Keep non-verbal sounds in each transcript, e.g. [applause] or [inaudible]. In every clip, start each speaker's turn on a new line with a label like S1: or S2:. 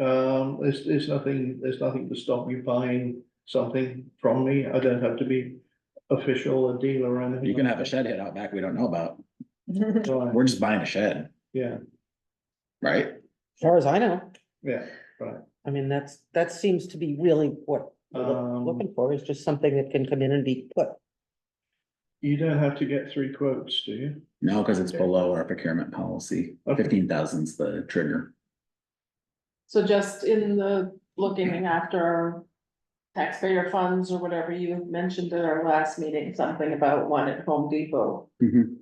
S1: Um, there's, there's nothing, there's nothing to stop you buying something from me. I don't have to be official, a dealer or anything.
S2: You can
S1: like
S2: have a shed hit out back we don't know about.
S1: that. Right,
S2: We're just buying a shed,
S1: Yeah,
S2: right?
S3: far as I know,
S1: yeah.
S3: I mean, that's, that seems to be really what we're loo-
S1: Um,
S3: looking for, is just something that can come in and be put.
S1: You don't have to get three quotes, do you?
S2: No, because it's below our procurement policy.
S1: Okay.
S2: Fifteen thousand's the trigger.
S4: So just in the looking after taxpayer funds or whatever, you mentioned at our last meeting, something about one at Home Depot.
S2: Mhm.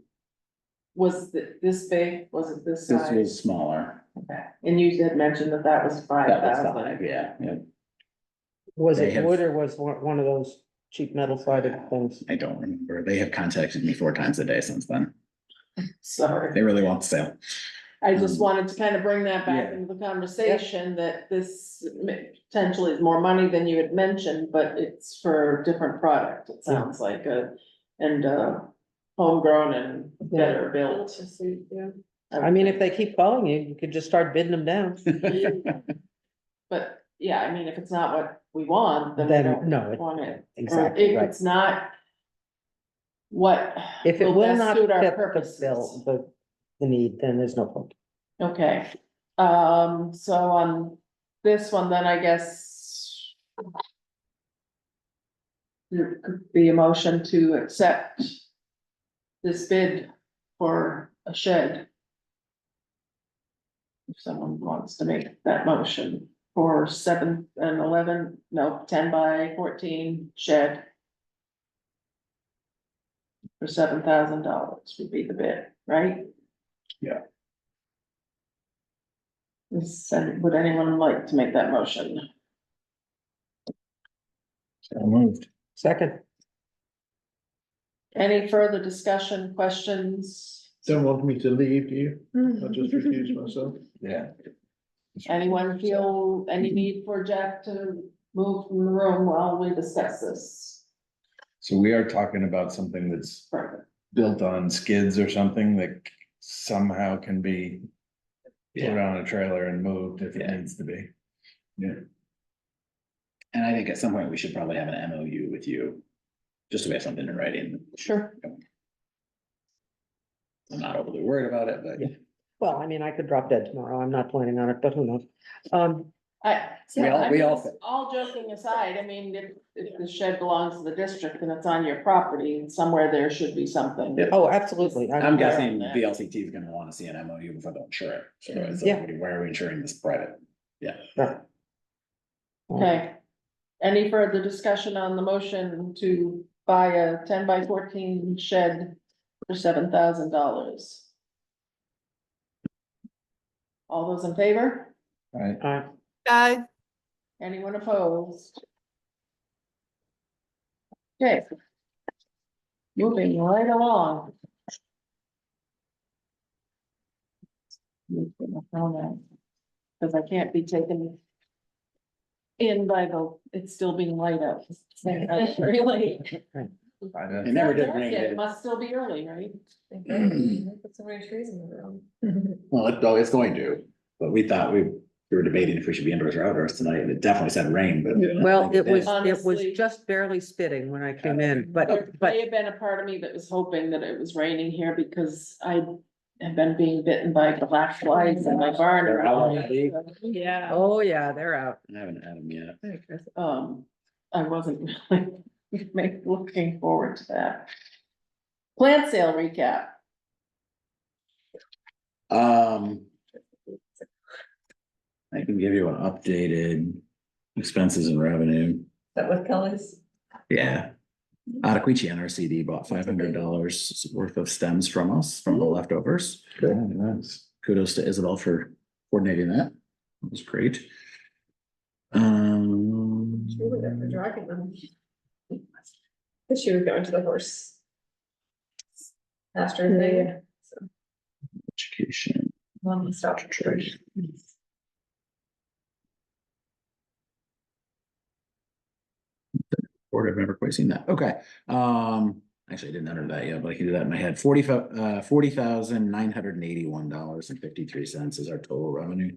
S4: Was thi- this big, was it this
S2: This
S4: size?
S2: was smaller.
S4: Okay. And you had mentioned that that was five
S2: That was five,
S4: thousand.
S2: yeah, yeah.
S3: Was
S2: They
S3: it
S2: have-
S3: wood or was one, one of those cheap metal sided things?
S2: I don't remember. They have contacted me four times a day since then.
S4: Sorry,
S2: They really want the sale.
S4: I just wanted to kind of bring that back
S2: Mm-hmm. Yeah.
S4: into the conversation that this m- potentially is more money than you had mentioned, but it's for different product, it sounds like, uh, and, uh, homegrown and better built.
S3: I mean, if they keep calling you, you could just start bidding them
S2: [laughs]
S3: down.
S4: But, yeah, I mean, if it's not what we want, then we
S3: Then,
S4: don't
S3: no, it-
S4: want it. Or
S3: exactly,
S4: if
S3: right.
S4: it's not what,
S3: If it
S4: will
S3: will
S4: best
S3: not fit
S4: suit our
S3: the
S4: purposes.
S3: bill, the, the need, then there's no point.
S4: okay, um, so on this one, then I guess there could be a motion to accept this bid for a shed. If someone wants to make that motion for seven and eleven, no, ten by fourteen shed. For seven thousand dollars would be the bid, right?
S1: Yeah.
S4: Is- would anyone like to make that motion?
S2: Moved.
S3: Second,
S4: Any further discussion, questions?
S1: Don't want me to leave, do you?
S2: Hmm.
S1: I just refuse myself.
S2: Yeah.
S4: Anyone feel any need for Jack to move from the room while we discuss this?
S5: So we are talking about something that's
S4: further?
S5: built on skids or something that somehow can be. Put on a trailer and moved if it
S2: Yeah.
S5: needs to be.
S2: And I think at some point we should probably have an MOU with you. Just so we have something in writing.
S3: sure.
S2: I'm not overly worried about it, but.
S3: Yeah. Well, I mean, I could drop dead tomorrow. I'm not planning on it, but who knows? Um,
S4: I.
S2: We all- we all-
S4: All joking aside, I mean, if, if the shed belongs to the district and it's on your property, and somewhere there should be something.
S2: Yep.
S3: oh, absolutely. I-
S2: I'm guessing VLCT is gonna wanna see an MOU before they'll insure it. So it's
S3: Yeah.
S2: like, why are we insuring this private?
S3: Oh,
S4: Okay. Any further discussion on the motion to buy a ten by fourteen shed for seven thousand dollars? All those in favor?
S5: Right,
S3: Uh,
S6: Aye.
S4: Anyone opposed? Okay. Moving right along. Because I can't be taken in by the, it's still being light
S3: [laughs]
S4: out. Really?
S5: I
S2: It
S5: don't-
S2: never did
S4: Not dark
S2: rain.
S4: yet,
S2: did
S4: It
S2: it?
S4: must still be early, right?
S7: Put so many trees in the room.
S2: Well, it, oh, it's going to, but we thought we, we were debating if we should be indoors or outdoors tonight, and it definitely said rain, but.
S1: Yeah.
S3: Well, it was, it was
S4: Honestly.
S3: just barely spitting when I came in,
S4: There
S3: but, but
S4: may have been a part of me that was hoping that it was raining here because I have been being bitten by black flies in my barn.
S2: They're out already?
S4: Yeah.
S3: Oh, yeah, they're out.
S2: I haven't had them yet.
S4: Um, I wasn't [laughs] really ma- looking forward to that. Plant sale recap.
S2: Um. I can give you an updated expenses and revenue.
S7: That with Kelly's.
S2: Yeah. Adequiche NRCD bought five hundred dollars worth of stems from us, from the leftovers.
S5: Yeah, nice.
S2: Kudos to Isabel for coordinating that. That was great. Um.
S7: She was there for dragging them. But she was going to the horse. Pastor thing,
S2: Education.
S7: one stop.
S2: Board, I've never quite seen that. Okay, um, actually, I didn't enter that yet, but I can do that in my head. Forty five, uh, forty thousand nine hundred and eighty one dollars and fifty three cents is our total revenue.